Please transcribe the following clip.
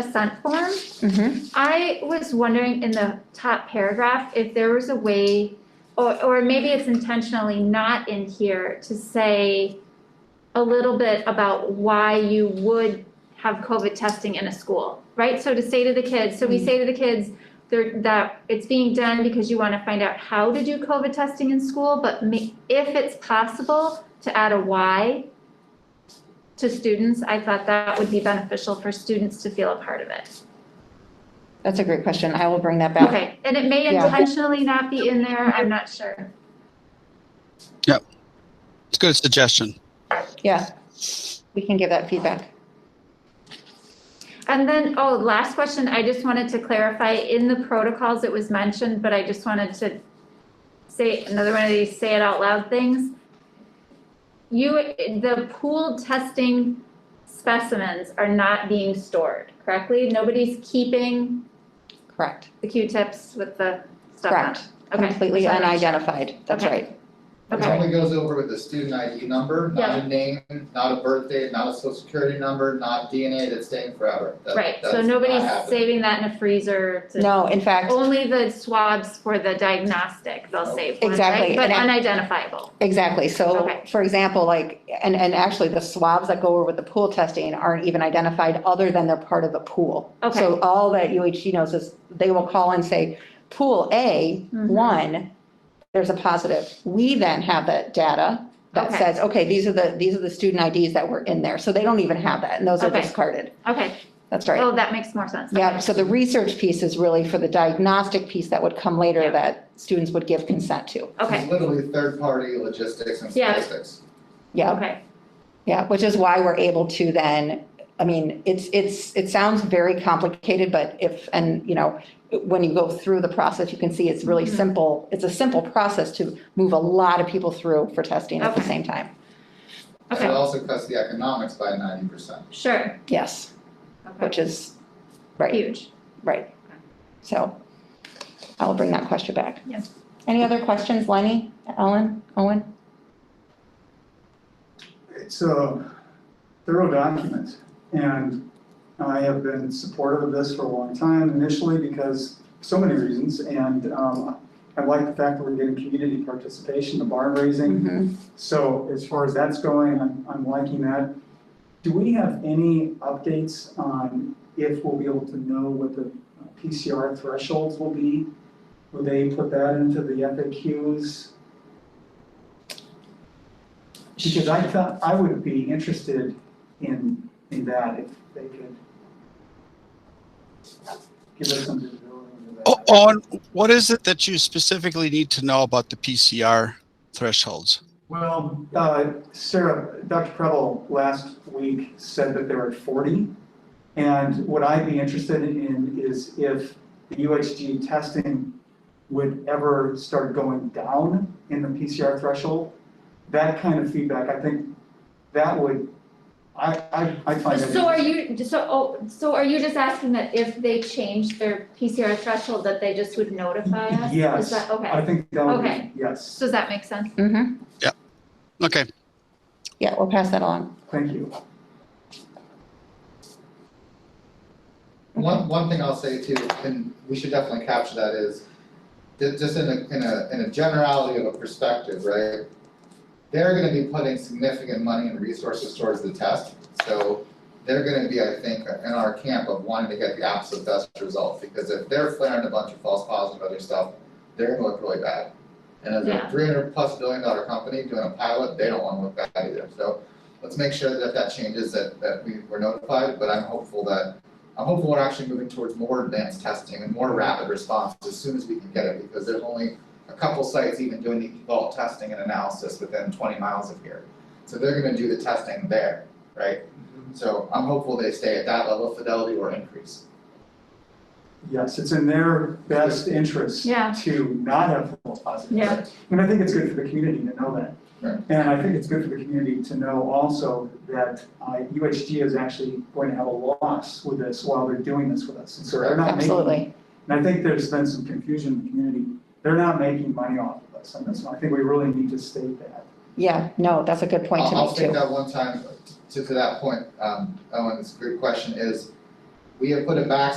assent form. Mm-hmm. I was wondering in the top paragraph if there was a way, or, or maybe it's intentionally not in here, to say a little bit about why you would have COVID testing in a school, right? So to say to the kids, so we say to the kids, there, that it's being done because you wanna find out how to do COVID testing in school, but ma- if it's possible to add a why to students, I thought that would be beneficial for students to feel a part of it. That's a great question. I will bring that back. Okay, and it may Yeah. intentionally not be in there, I'm not sure. It's a good suggestion. Yeah. We can give that feedback. And then, oh, last question, I just wanted to clarify, in the protocols, it was mentioned, but I just wanted to say, another one of these say it out loud things. You, the pooled testing specimens are not being stored, correctly? Nobody's keeping Correct. the Q-tips with the stuff on it? Correct. Okay, Completely just wanted to make sure. unidentified. That's Okay. right. It Okay. only goes over with the student ID number, not a name, not a birthday, not a social security number, not DNA, that's staying forever. That- Right, so that's not nobody's happening. saving that in a freezer to No, in fact, Only the swabs for the diagnostic, they'll save one, right? Exactly, But and I- unidentifiable, exactly. So Okay. for example, like, and, and actually the swabs that go over with the pool testing aren't even identified other than they're part of a pool. Okay. So all that UHG knows is they will call and say, pool A, Mhm. one, there's a positive. We then have that data that Okay. says, okay, these are the, these are the student IDs that were in there. So they don't even have that and those are Okay. discarded. okay, That's right. oh, that makes more sense. Yeah, so the research piece is really for the diagnostic piece that would come later Yeah. that students would give consent to. Okay, It's literally third-party logistics and Yeah. statistics. Yeah, okay, yeah, which is why we're able to then, I mean, it's, it's, it sounds very complicated, but if, and, you know, when you go through the process, you can see it's really Mhm. simple. It's a simple process to move a lot of people through for testing at the Okay. same time. And Okay. it also cuts the economics by ninety percent. sure, Yes, okay, which is, right, huge. right. So I'll bring that question back. Yeah. Any other questions, Lenny, Ellen, Owen? It's a thorough document, and I have been supportive of this for a long time initially because so many reasons, and um, I like the fact that we're getting community participation, the barn raising. Mhm. So as far as that's going, I'm, I'm liking that. Do we have any updates on if we'll be able to know what the PCR thresholds will be? Will they put that into the FAQs? Because I thought, I would be interested in, in that if they could give us some visibility into that. O- Owen, what is it that you specifically need to know about the PCR thresholds? Well, uh, Sarah, Dr. Preble last week said that they were at 40. And what I'd be interested in is if the UHG testing would ever start going down in the PCR threshold. That kind of feedback, I think that would, I, I, I find that. So are you, so, oh, so are you just asking that if they change their PCR threshold, that they just would notify us? Is Yes. that, I okay, think that would, Okay. be- yes, so does that make sense? Mm-hmm, Okay, yeah, we'll pass that along. thank you. One, one thing I'll say too, and we should definitely capture that is, ju- just in a, in a, in a generality of a perspective, right? They're gonna be putting significant money and resources towards the test, so they're gonna be, I think, in our camp of wanting to get the absolute best result, because if they're flaring a bunch of false positives and other stuff, they're gonna look really bad. And as a Yeah. three hundred plus billion dollar company doing a pilot, they don't wanna look bad either, so let's make sure that if that changes, that, that we were notified, but I'm hopeful that I'm hopeful we're actually moving towards more advanced testing and more rapid response as soon as we can get it, because there's only a couple sites even doing the vault testing and analysis within twenty miles of here. So they're gonna do the testing there, right? So I'm hopeful they stay at that level of fidelity or increase. Yes, it's in their best interest Yeah. to not have false positives. Yeah. And I think it's good for the community to know that. Right. And I think it's good for the community to know also that uh, UHG is actually going to have a loss with this while they're doing this with us. And so they're not making. Absolutely. And I think there's been some confusion in the community. They're not making money off of us on this one. I think we really need to state that. Yeah, no, that's a good point to I'll- make I'll take too. that one time, to, to that point, um, Owen, it's a great question, is we have put a back